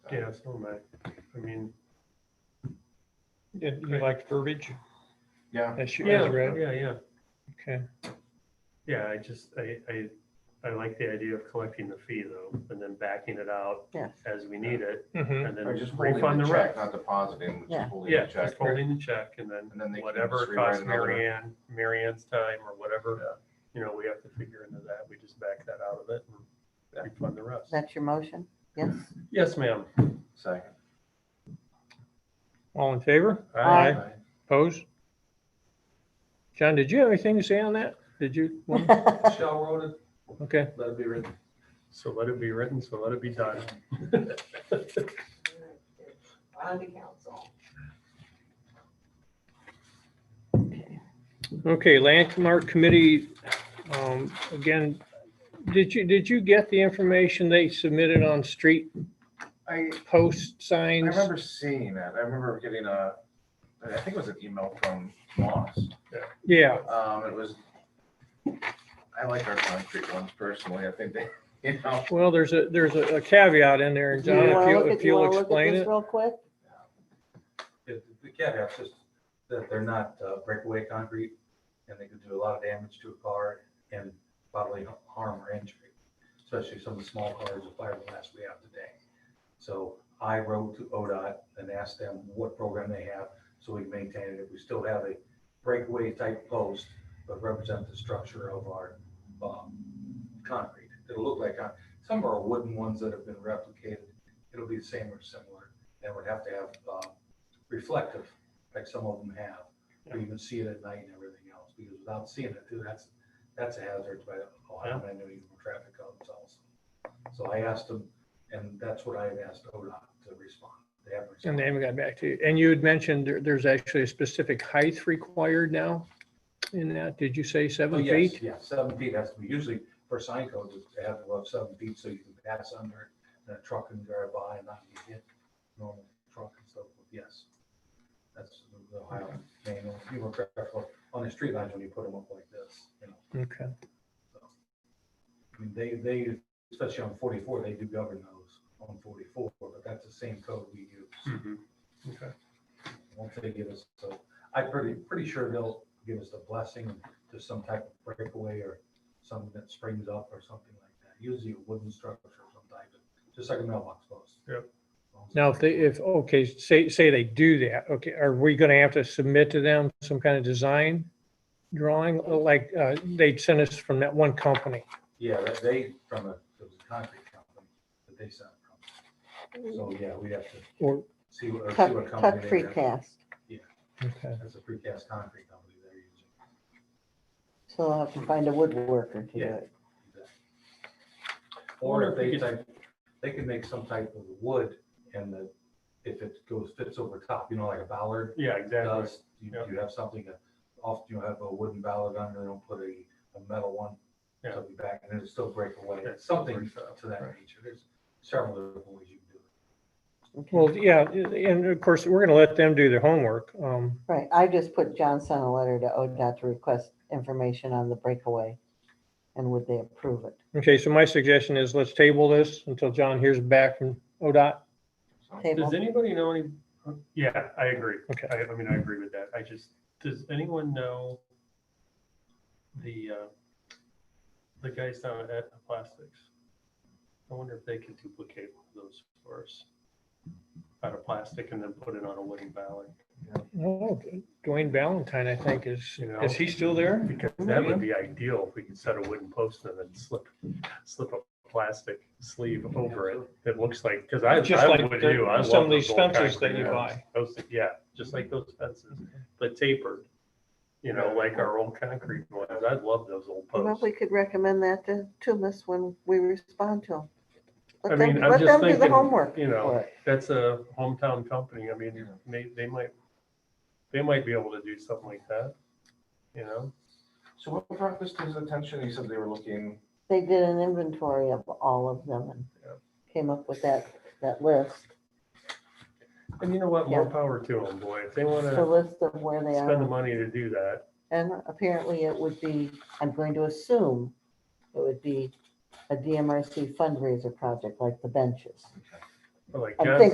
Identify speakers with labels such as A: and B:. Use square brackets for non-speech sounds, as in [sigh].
A: Yeah, so am I. I mean,
B: You you like verbiage
C: Yeah,
B: as you
A: yeah,
B: as read?
A: yeah, yeah.
B: Okay.
A: Yeah, I just, I, I, I like the idea of collecting the fee though, and then backing it out
D: Yeah.
A: as we need it,
B: Mhm.
A: and then
C: or just holding
A: refund
C: the
A: the
C: check,
A: rest.
C: not depositing,
D: Yeah.
C: just holding
A: Yeah,
C: the
A: just
C: check.
A: holding the check and then
C: And then they can
A: whatever
C: just
A: it
C: rewrite
A: costs
C: another-
A: Mary Ann, Mary Ann's time or whatever, you know, we have to figure into that. We just back that out of it and refund the rest.
D: That's your motion? Yes?
A: Yes, ma'am.
C: Second.
B: All in favor?
D: Aye.
B: Opposed? John, did you have anything to say on that? Did you?
D: [laughs]
E: Mm-hmm. Shell wrote it,
B: Okay.
E: let it be written.
A: So let it be written, so let it be done.
C: [laughs]
A: [laughs]
F: On the council.
B: Okay, landmark committee, um, again, did you, did you get the information they submitted on street
C: I,
B: post
C: I
B: signs?
C: remember seeing that. I remember getting a, I think it was an email from Moss.
B: Yeah,
C: Um, it was, I like our concrete ones personally. I think they, [laughs] you know,
B: well, there's a, there's a caveat in there, and
D: Do you
B: John, if
D: wanna
B: you'll,
D: look at-
B: if
D: you
B: you'll
D: wanna look at
B: explain
D: this
B: it.
D: Real quick?
E: It- The caveat's just that they're not uh, breakaway concrete and they could do a lot of damage to a car and bodily harm or injury, especially some of the small cars with fiberglass we have today. So I wrote to ODOT and asked them what program they have so we can maintain it. If we still have a breakaway type post, but represent the structure of our um, concrete. It'll look like, con- some are wooden ones that have been replicated. It'll be the same or similar. And would have to have um, reflective, like some of them have, where you can see it at night and everything else, because without seeing it, too, that's, that's a hazard by Ohio Manual Uniform Traffic Codes also. So I asked them, and that's what I had asked ODOT to respond. They haven't
B: And they
E: responded.
B: haven't got back to you. And you had mentioned there, there's actually a specific height required now in that. Did you say
E: Oh,
B: seven
E: yes,
B: feet?
E: Yeah, seven feet has to be, usually for sign codes, it's to have above seven feet so you can pass under it, and a truck can drive by and not be hit, normal truck and so forth, yes. That's the Ohio manual, you were careful on the street lines when you put them up like this, you know.
B: Okay.
E: I mean, they, they, especially on forty-four, they do govern those on forty-four, but that's the same code we use.
A: Mm-hmm. Okay.
E: Once they give us, so, I'm pretty, pretty sure they'll give us a blessing to some type of breakaway or something that springs up or something like that. Usually a wooden structure of some type, just like a mailbox post.
A: Yep.
B: Now, if they, if, okay, say, say they do that, okay, are we gonna have to submit to them some kind of design drawing? Like, uh, they sent us from that one company.
E: Yeah, that they, from a, it was a concrete company that they sent from. So, yeah, we have to
B: Or-
E: see what, or see
D: Tuck, tuck
E: what company they have.
D: precast.
B: Okay.
E: That's a precast concrete company they're using.
D: So I'll have to find a woodworker to do
E: Yeah.
D: it.
E: Or if they type, they can make some type of wood and the, if it goes, fits over top, you know, like a ballard
A: Yeah, exactly.
E: does. You
A: Yeah.
E: you have something that, often you have a wooden ballard under, they don't put a, a metal one.
A: Yeah.
E: So it'll be back and it'll still break away,
A: Yeah, still
E: something
A: breaks up,
E: to that
A: right.
E: nature. There's several different ways you can do it.
D: Okay.
B: Well, yeah, and of course, we're gonna let them do their homework. Um,
D: Right, I just put Johnson a letter to ODOT to request information on the breakaway. And would they approve it?
B: okay, so my suggestion is let's table this until John hears back from ODOT.
C: so,
D: Table,
A: Does anybody know any, yeah, I agree.
B: Okay.
A: I, I mean, I agree with that. I just, does anyone know the, uh, the guys down at Aetna Plastics? I wonder if they can duplicate one of those for us out of plastic and then put it on a wooden ballot,
B: Oh, Dwayne Valentine, I think, is,
A: you know?
B: is he still there?
A: Because that would be ideal if we could set a wooden post and then slip, slip a plastic sleeve over it. It looks like, because I,
B: Just
A: I
B: like
A: would
B: the-
A: do. I
B: some
A: love
B: of these
A: those old
B: fences that
A: concrete
B: you
A: ones.
B: buy.
A: Those, yeah, just like those fences, but tapered. You know, like our old concrete ones. I love those old
D: well,
A: posts.
D: we could recommend that to, to Miss when we respond to
A: I
D: them. Let
A: mean,
D: them,
A: I'm
D: let
A: just
D: them do the
A: thinking,
D: homework.
A: you
D: for
A: know,
D: it.
A: that's a hometown company. I mean,
C: Yeah.
A: they, they might, they might be able to do something like that, you know?
C: so what brought this to his attention? He said they were looking,
D: They did an inventory of all of them and
A: Yeah.
D: came up with that, that list,
A: And you know what? More
D: Yeah.
A: power to them, boy. If they want
D: the
A: to
D: list of where they
A: spend the
D: are.
A: money to do that,
D: And apparently it would be, I'm going to assume it would be a DMRC fundraiser project like the benches.
G: Or like
A: I
G: John
A: think